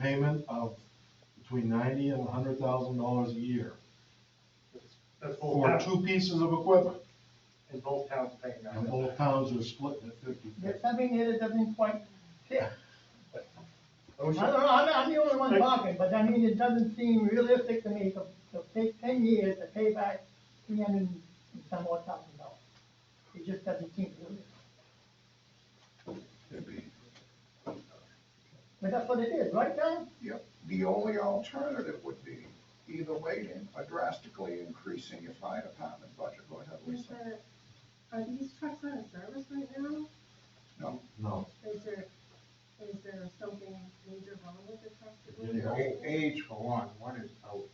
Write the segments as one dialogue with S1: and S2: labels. S1: payment of between ninety and hundred thousand dollars a year
S2: That's both
S1: for
S2: towns,
S1: two pieces of equipment,
S2: and both towns paying that.
S1: and both towns are splitting it fifty.
S3: There's something here that doesn't quite fit.
S2: I
S3: I
S2: wish-
S3: don't know, I'm, I'm the only one talking, but I mean, it doesn't seem realistic to me to, to take ten years to pay back three hundred and some odd thousand dollars. It just doesn't seem realistic. But that's what it is, right, John?
S4: Yep, the only alternative would be either waiting or drastically increasing your fire department budget, go ahead,
S5: Is
S4: Lisa.
S5: that, are these trucks out of service right now?
S4: No,
S1: No,
S5: Is there, is there something major wrong with the trucks? that we're
S1: Yeah.
S6: A-
S5: using?
S6: Age for one, one is out, one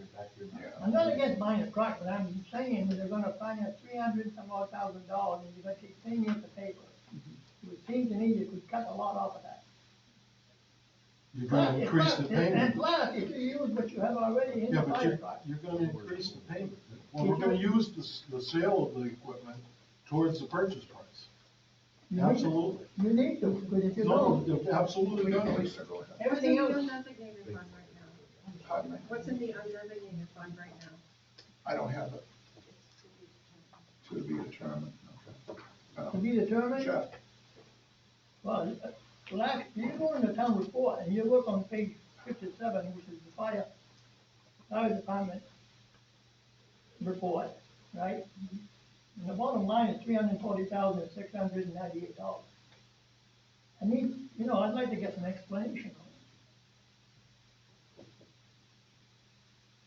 S6: is actually.
S4: yeah,
S3: I'm not against buying a truck, but I'm saying that they're gonna finance three hundred some odd thousand dollars, and you're gonna take ten years to pay for it. It would seem to me you could cut a lot off of that.
S1: you're gonna increase the
S3: Plus, and- And
S1: payment.
S3: plus, if you use what you have already in the
S1: Yeah, but
S3: fire
S1: you're,
S3: department.
S1: you're gonna increase the payment. Well, we're gonna use the, s- the sale of the equipment towards the purchase price.
S3: You need-
S1: Absolutely.
S3: You need to, because if you
S1: No,
S3: don't,
S1: you're absolutely not.
S4: Lisa, go ahead,
S5: What's
S3: everything
S5: in the
S3: else,
S5: undesignated fund right now?
S4: pardon me,
S5: What's in the undesignated fund right now?
S4: I don't have it. To be determined, okay.
S3: to
S4: Um,
S3: be determined,
S4: Jeff,
S3: well, last, you go in the town report, and you look on page fifty-seven, which is the fire, fire department report, right? And the bottom line is three hundred and forty thousand, six hundred and ninety-eight dollars. I mean, you know, I'd like to get some explanation on it.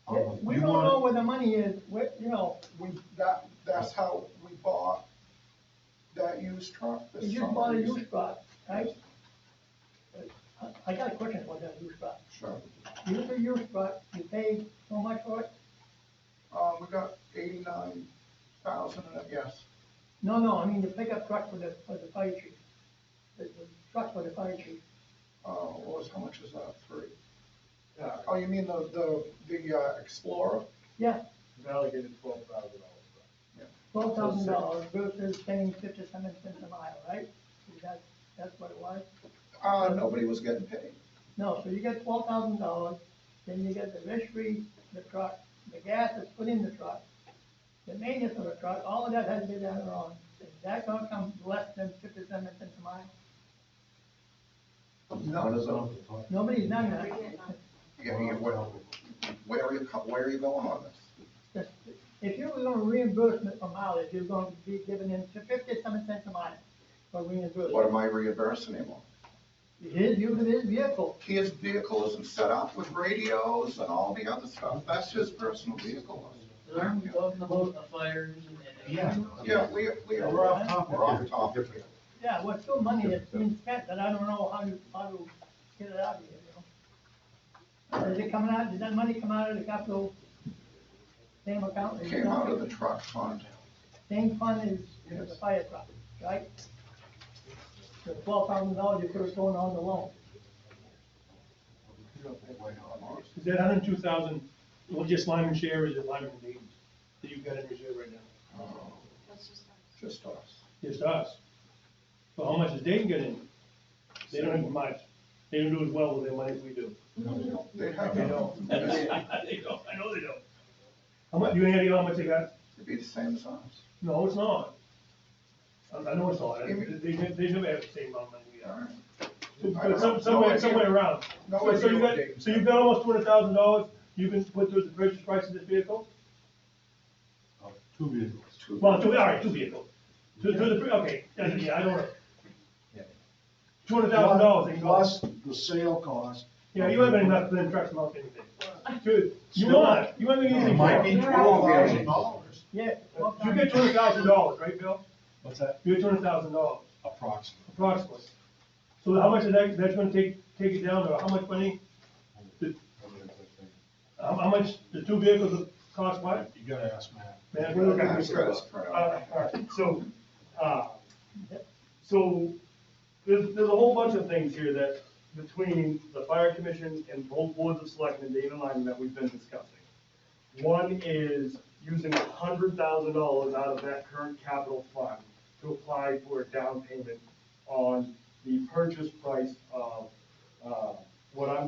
S1: Um,
S3: We
S1: you
S3: don't
S1: wanna-
S3: know where the money is, where, you know,
S4: we, that, that's how we bought that used truck this
S3: you just
S4: summer.
S3: bought a used truck, right? I, I got a question about that used truck.
S4: Sure,
S3: You have a used truck, you paid so much for it?
S4: uh, we got eighty-nine thousand in it, yes,
S3: No, no, I mean the pickup truck for the, for the fire chief. The, the truck for the fire chief.
S4: uh, what was, how much is that, three?
S2: Yeah,
S4: Oh, you mean the, the, the uh, Explorer?
S3: Yeah,
S2: it's allocated twelve thousand dollars.
S3: twelve thousand dollars versus paying fifty-seven cents a mile, right? Is that, that's what it was?
S4: Uh, nobody was getting paid.
S3: No, so you get twelve thousand dollars, then you get the registry, the truck, the gas that's put in the truck, the maintenance of the truck, all of that has to be done on. Is that gonna come less than fifty-seven cents a mile?
S4: None of them.
S3: Nobody's done that.
S5: Bring it up.
S4: Yeah, yeah, where, where are you, co- where are you going on this?
S3: If you were gonna reimbursement for mileage, you're gonna be giving in fifty-seven cents a mile for
S4: What
S3: reimbursement.
S4: am I reimbursing him on?
S3: His, using his vehicle,
S4: His vehicle isn't set up with radios and all the other stuff, that's his personal vehicle.
S7: They're talking about the fires and.
S1: Yeah.
S4: Yeah, we, we,
S1: We're
S4: we're
S1: off topic.
S4: off topic.
S3: yeah, well, it's still money that's been spent, but I don't know how to, how to get it out of here, you know? Uh, Is it coming out, did that money come out of the capital? Same account?
S4: Came out of the truck fund.
S3: Same fund as- as the
S4: Yes.
S3: fire truck, right? The twelve thousand dollars you could have thrown on the loan.
S2: Is that hundred and two thousand, what just Lyman share, or is it Lyman and Dayton, that you've got in reserve right now?
S4: Just us.
S2: Just us. Well, how much does Dayton get in? They don't have much, they don't do as well with their money as we do.
S4: They
S2: I
S4: have,
S2: know.
S4: it'd
S2: They don't, I know they don't. How much, you any idea how much they got?
S4: be the same as us.
S2: No, it's not. I, I know it's not, they, they, they never have the same amount of money we
S4: All
S2: have.
S4: right.
S2: But some, somewhere, somewhere around.
S4: No
S2: So, so
S4: idea
S2: you
S4: what
S2: got,
S4: Dayton's
S2: so you've
S4: got.
S2: got almost two hundred thousand dollars you can put towards the purchase price of this vehicle?
S1: Uh, Two vehicles.
S4: Two-
S2: Well, two, all right, two vehicles. To, to the, okay, yeah, yeah, I don't know. Two hundred thousand dollars, they cost.
S1: Plus the sale cost.
S2: Yeah, you haven't enough for them trucks to mount anything. Dude, you want, you haven't
S1: It
S2: anything
S1: might
S2: more.
S1: be
S2: You
S1: twelve thousand dollars.
S3: Yeah.
S2: get two hundred thousand dollars, right, Bill?
S1: What's that?
S2: You get two hundred thousand dollars,
S1: Approximately.
S2: approximately. So how much is that, that's gonna take, take it down, or how much money? The- How, how much, the two vehicles cost what?
S1: You gotta ask Matt.
S2: Man, we're looking at this.
S4: Yeah, it's pretty-
S8: Uh, alright, so, uh, so, there's, there's a whole bunch of things here that, between the fire commission and both boards of selectmen, Dave and Lyman, that we've been discussing. One is using a hundred thousand dollars out of that current capital fund to apply for a down payment on the purchase price of, uh, what I'm